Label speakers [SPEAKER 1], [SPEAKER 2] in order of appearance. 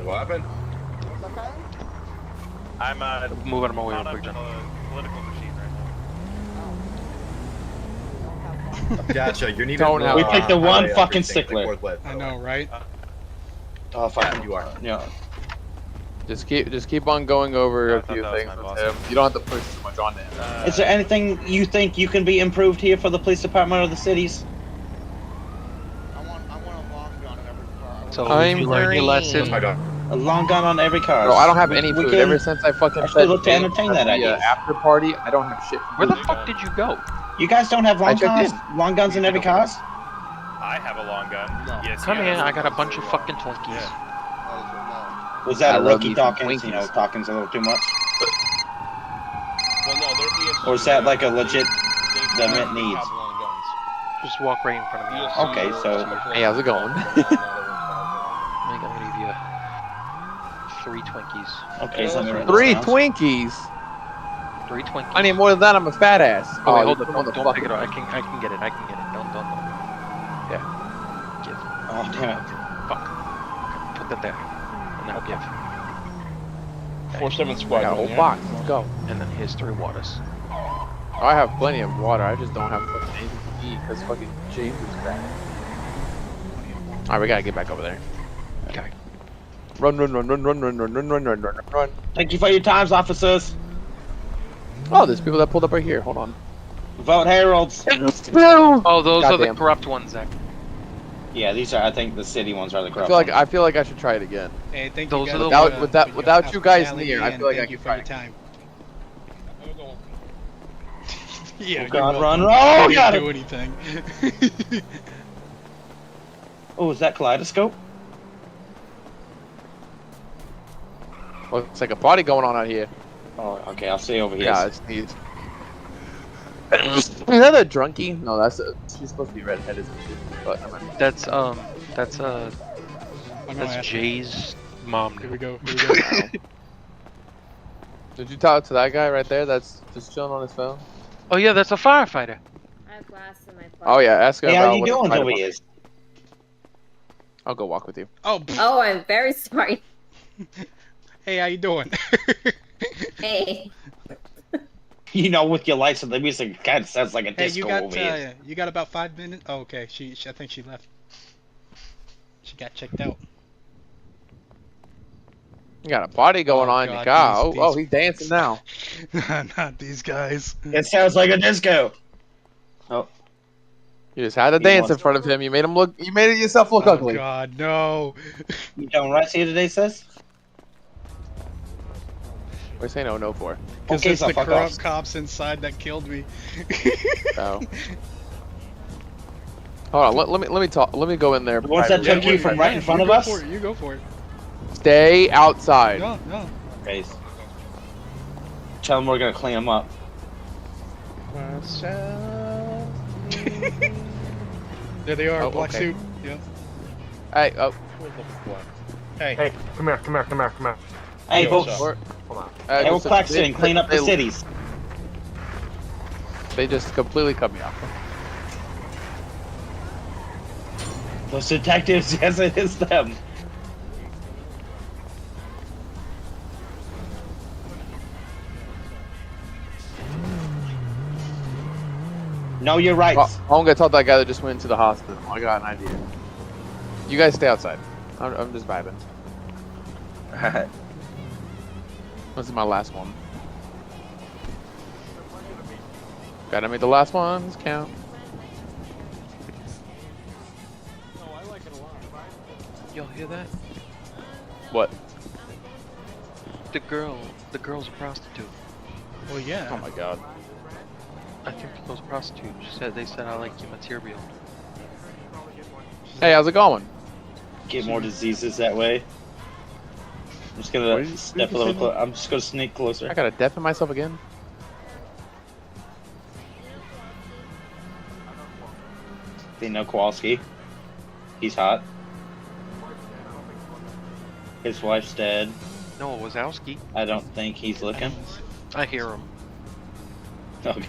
[SPEAKER 1] What happened?
[SPEAKER 2] I'm uh,
[SPEAKER 3] Move out of my way,
[SPEAKER 2] caught
[SPEAKER 3] real
[SPEAKER 2] up
[SPEAKER 3] quick,
[SPEAKER 2] in the
[SPEAKER 3] John.
[SPEAKER 2] political machine right now.
[SPEAKER 1] Gotcha. You need
[SPEAKER 3] Don't
[SPEAKER 1] to
[SPEAKER 3] have-
[SPEAKER 4] We picked the one fucking stickler.
[SPEAKER 1] stickler.
[SPEAKER 5] I know, right?
[SPEAKER 4] Oh,
[SPEAKER 1] Yeah,
[SPEAKER 4] fuck.
[SPEAKER 1] you are.
[SPEAKER 4] Yeah.
[SPEAKER 3] Just keep, just keep on going over
[SPEAKER 2] Yeah, I
[SPEAKER 3] a
[SPEAKER 2] thought
[SPEAKER 3] few
[SPEAKER 2] that was
[SPEAKER 3] things
[SPEAKER 2] my
[SPEAKER 3] with
[SPEAKER 2] boss.
[SPEAKER 3] him. You don't have to push too much on him.
[SPEAKER 2] Uh,
[SPEAKER 4] Is there anything you think you can be improved here for the police department or the cities?
[SPEAKER 6] I want, I want a long gun in every car. I want
[SPEAKER 7] So
[SPEAKER 3] I'm
[SPEAKER 7] did you learn your
[SPEAKER 3] green.
[SPEAKER 7] lesson.
[SPEAKER 1] I don't.
[SPEAKER 4] A long gun on every car.
[SPEAKER 3] Bro, I don't have any
[SPEAKER 4] We
[SPEAKER 3] food
[SPEAKER 4] can-
[SPEAKER 3] ever since I fucking
[SPEAKER 4] I
[SPEAKER 3] fed
[SPEAKER 4] should look to
[SPEAKER 3] James
[SPEAKER 4] entertain
[SPEAKER 3] at
[SPEAKER 4] that
[SPEAKER 3] the, uh,
[SPEAKER 4] idea.
[SPEAKER 3] after party. I don't have shit.
[SPEAKER 7] Where the
[SPEAKER 2] Dude,
[SPEAKER 7] fuck
[SPEAKER 2] uh,
[SPEAKER 7] did you go?
[SPEAKER 4] You guys don't have
[SPEAKER 3] I
[SPEAKER 4] long
[SPEAKER 3] checked
[SPEAKER 4] guns? Long guns in every car?
[SPEAKER 2] I have a long gun. Yes,
[SPEAKER 7] Come
[SPEAKER 2] yes.
[SPEAKER 7] here, I got a bunch of fucking Twinkies.
[SPEAKER 6] those,
[SPEAKER 4] Was
[SPEAKER 3] I
[SPEAKER 4] that a
[SPEAKER 3] love
[SPEAKER 4] rookie
[SPEAKER 3] me some
[SPEAKER 4] Dawkins? You know,
[SPEAKER 3] Twinkies.
[SPEAKER 4] Dawkins a little too much?
[SPEAKER 6] Well, no, they're ESG.
[SPEAKER 4] Or is that like a legit.
[SPEAKER 6] They-
[SPEAKER 4] the
[SPEAKER 6] they
[SPEAKER 4] mint needs?
[SPEAKER 6] have long guns.
[SPEAKER 7] Just walk right in front of me.
[SPEAKER 6] ESG
[SPEAKER 7] Alright,
[SPEAKER 4] Okay,
[SPEAKER 6] or
[SPEAKER 4] so-
[SPEAKER 6] something.
[SPEAKER 3] Hey, how's it going?
[SPEAKER 7] I think I'm gonna give you a three Twinkies.
[SPEAKER 4] Okay, so I'm gonna write this
[SPEAKER 3] Three
[SPEAKER 4] down.
[SPEAKER 3] Twinkies.
[SPEAKER 7] Three Twinkies.
[SPEAKER 3] I need more than that. I'm a fat ass.
[SPEAKER 7] Oh, wait, hold
[SPEAKER 3] you
[SPEAKER 7] on, don't, don't
[SPEAKER 3] motherfucker.
[SPEAKER 7] pick it up. I can, I can get it. I can get it. Don't, don't, don't. Yeah. Give.
[SPEAKER 4] Oh, damn it.
[SPEAKER 7] Put that there. And now give.
[SPEAKER 6] Four seven
[SPEAKER 3] I
[SPEAKER 6] squad.
[SPEAKER 3] got
[SPEAKER 6] gun,
[SPEAKER 3] a whole
[SPEAKER 6] yeah?
[SPEAKER 3] box. Let's go.
[SPEAKER 7] And then here's three waters.
[SPEAKER 3] I have plenty of water. I just don't have fucking anything to eat because fucking James is back. All right, we gotta get back over there.
[SPEAKER 7] Okay.
[SPEAKER 3] Run, run, run, run, run, run, run, run, run, run, run, run.
[SPEAKER 4] Thank you for your times, officers.
[SPEAKER 3] Oh, there's people that pulled up right here. Hold on.
[SPEAKER 4] Vote Heralds.
[SPEAKER 7] Oh, those are
[SPEAKER 3] Goddamn.
[SPEAKER 7] the corrupt ones, Zach.
[SPEAKER 4] Yeah, these are, I think, the city ones are the
[SPEAKER 3] I
[SPEAKER 4] corrupt
[SPEAKER 3] feel like
[SPEAKER 4] ones.
[SPEAKER 3] I feel like I should try it again.
[SPEAKER 5] Hey, thank
[SPEAKER 7] Those
[SPEAKER 5] you
[SPEAKER 7] are the
[SPEAKER 5] guys. for,
[SPEAKER 3] ones- Without-
[SPEAKER 5] for
[SPEAKER 3] without
[SPEAKER 5] your
[SPEAKER 3] you guys
[SPEAKER 5] hospitality
[SPEAKER 3] near, I
[SPEAKER 5] and
[SPEAKER 3] feel like
[SPEAKER 5] thank
[SPEAKER 3] I
[SPEAKER 5] you
[SPEAKER 3] could
[SPEAKER 5] for your time.
[SPEAKER 4] Oh,
[SPEAKER 5] Yeah,
[SPEAKER 4] God,
[SPEAKER 5] you're
[SPEAKER 4] run, run.
[SPEAKER 5] welcome. I
[SPEAKER 4] Oh,
[SPEAKER 5] didn't
[SPEAKER 4] got
[SPEAKER 5] do
[SPEAKER 4] it.
[SPEAKER 5] anything.
[SPEAKER 4] Oh, is that Kaleidoscope?
[SPEAKER 3] Looks like a party going on out here.
[SPEAKER 4] Oh, okay, I'll stay over here.
[SPEAKER 3] Yeah, it's neat. Is that a drunkie? No, that's a, she's supposed to be redheaded, isn't she? But never mind.
[SPEAKER 7] That's um, that's uh,
[SPEAKER 5] I'm gonna
[SPEAKER 7] that's
[SPEAKER 5] ask-
[SPEAKER 7] Jay's mom.
[SPEAKER 5] Here we go. Here we go.
[SPEAKER 3] did you talk to that guy right there? That's just chilling on his phone.
[SPEAKER 7] Oh yeah, that's a firefighter.
[SPEAKER 8] I have glass in my pocket.
[SPEAKER 3] Oh yeah, ask him.
[SPEAKER 4] Hey,
[SPEAKER 3] about
[SPEAKER 4] how you
[SPEAKER 3] what the
[SPEAKER 4] doing
[SPEAKER 3] fight
[SPEAKER 4] over
[SPEAKER 3] about-
[SPEAKER 4] here?
[SPEAKER 3] I'll go walk with you.
[SPEAKER 5] Oh, pff,
[SPEAKER 8] Oh, I'm very sorry.
[SPEAKER 5] hey, how you doing?
[SPEAKER 8] Hey.
[SPEAKER 4] You know, with your lights and the music, it kind of sounds like a
[SPEAKER 5] hey,
[SPEAKER 4] disco
[SPEAKER 5] you got
[SPEAKER 4] over here.
[SPEAKER 5] uh, you got about five minutes. Oh, okay. She, she, I think she left. She got checked out.
[SPEAKER 3] You got a party going
[SPEAKER 5] Oh,
[SPEAKER 3] on in your
[SPEAKER 5] God,
[SPEAKER 3] car.
[SPEAKER 5] these-
[SPEAKER 3] oh, oh,
[SPEAKER 5] these-
[SPEAKER 3] he's dancing now.
[SPEAKER 5] Not these guys.
[SPEAKER 4] It sounds like a disco.
[SPEAKER 3] You just had to
[SPEAKER 4] He
[SPEAKER 3] dance
[SPEAKER 4] wants-
[SPEAKER 3] in front of him. You made him look. You made it yourself look
[SPEAKER 5] oh
[SPEAKER 3] ugly.
[SPEAKER 5] God, no.
[SPEAKER 4] You doing rights here today, sis?
[SPEAKER 3] We're saying no, no for.
[SPEAKER 5] Because
[SPEAKER 4] Okay,
[SPEAKER 5] it's
[SPEAKER 4] so
[SPEAKER 5] the
[SPEAKER 4] fuck
[SPEAKER 5] corrupt
[SPEAKER 4] off.
[SPEAKER 5] cops inside that killed me.
[SPEAKER 3] So. Hold on. Let, let me let me talk. Let me go in there.
[SPEAKER 4] The ones that
[SPEAKER 3] privately.
[SPEAKER 4] took you from right in front
[SPEAKER 5] you
[SPEAKER 4] of
[SPEAKER 5] go
[SPEAKER 4] us?
[SPEAKER 5] For it, you go for it.
[SPEAKER 3] Stay outside.
[SPEAKER 5] No, no.
[SPEAKER 4] Okay. Tell them we're gonna clean them up.
[SPEAKER 5] There they are.
[SPEAKER 3] Oh,
[SPEAKER 5] black
[SPEAKER 3] okay.
[SPEAKER 5] suit. Yeah.
[SPEAKER 3] Hey, oh,
[SPEAKER 6] Hey,
[SPEAKER 9] Hey, come here, come here, come here, come here.
[SPEAKER 4] Hey,
[SPEAKER 6] Yo,
[SPEAKER 4] folks.
[SPEAKER 6] what's up?
[SPEAKER 3] we're,
[SPEAKER 9] Hold on.
[SPEAKER 3] uh,
[SPEAKER 4] Oh. Hey, we're
[SPEAKER 3] listen,
[SPEAKER 4] Claxton,
[SPEAKER 3] they-
[SPEAKER 4] clean up the
[SPEAKER 3] they-
[SPEAKER 4] cities.
[SPEAKER 3] They just completely cut me off.
[SPEAKER 4] Those detectives, yes, it is them. No, you're right.
[SPEAKER 3] Well, I'm gonna tell that guy that just went into the hospital. I got an idea. You guys stay outside. I'm, I'm just vibing. This is my last one. Gotta make the last ones count.
[SPEAKER 7] Y'all hear that?
[SPEAKER 3] What?
[SPEAKER 7] The girl, the girl's a prostitute.
[SPEAKER 5] Well, yeah.
[SPEAKER 3] Oh my god.
[SPEAKER 7] I think the girl's a prostitute. She said they said I like your material.
[SPEAKER 3] Hey, how's it going?
[SPEAKER 4] Get more diseases that way. I'm just gonna step a little closer. I'm just gonna sneak
[SPEAKER 3] I
[SPEAKER 4] closer.
[SPEAKER 3] gotta deafen myself again.
[SPEAKER 4] They know Kowalski. He's hot. His wife's dead.
[SPEAKER 7] No, it was Wazowski.
[SPEAKER 4] I don't think he's looking.
[SPEAKER 7] I hear him.
[SPEAKER 4] Okay.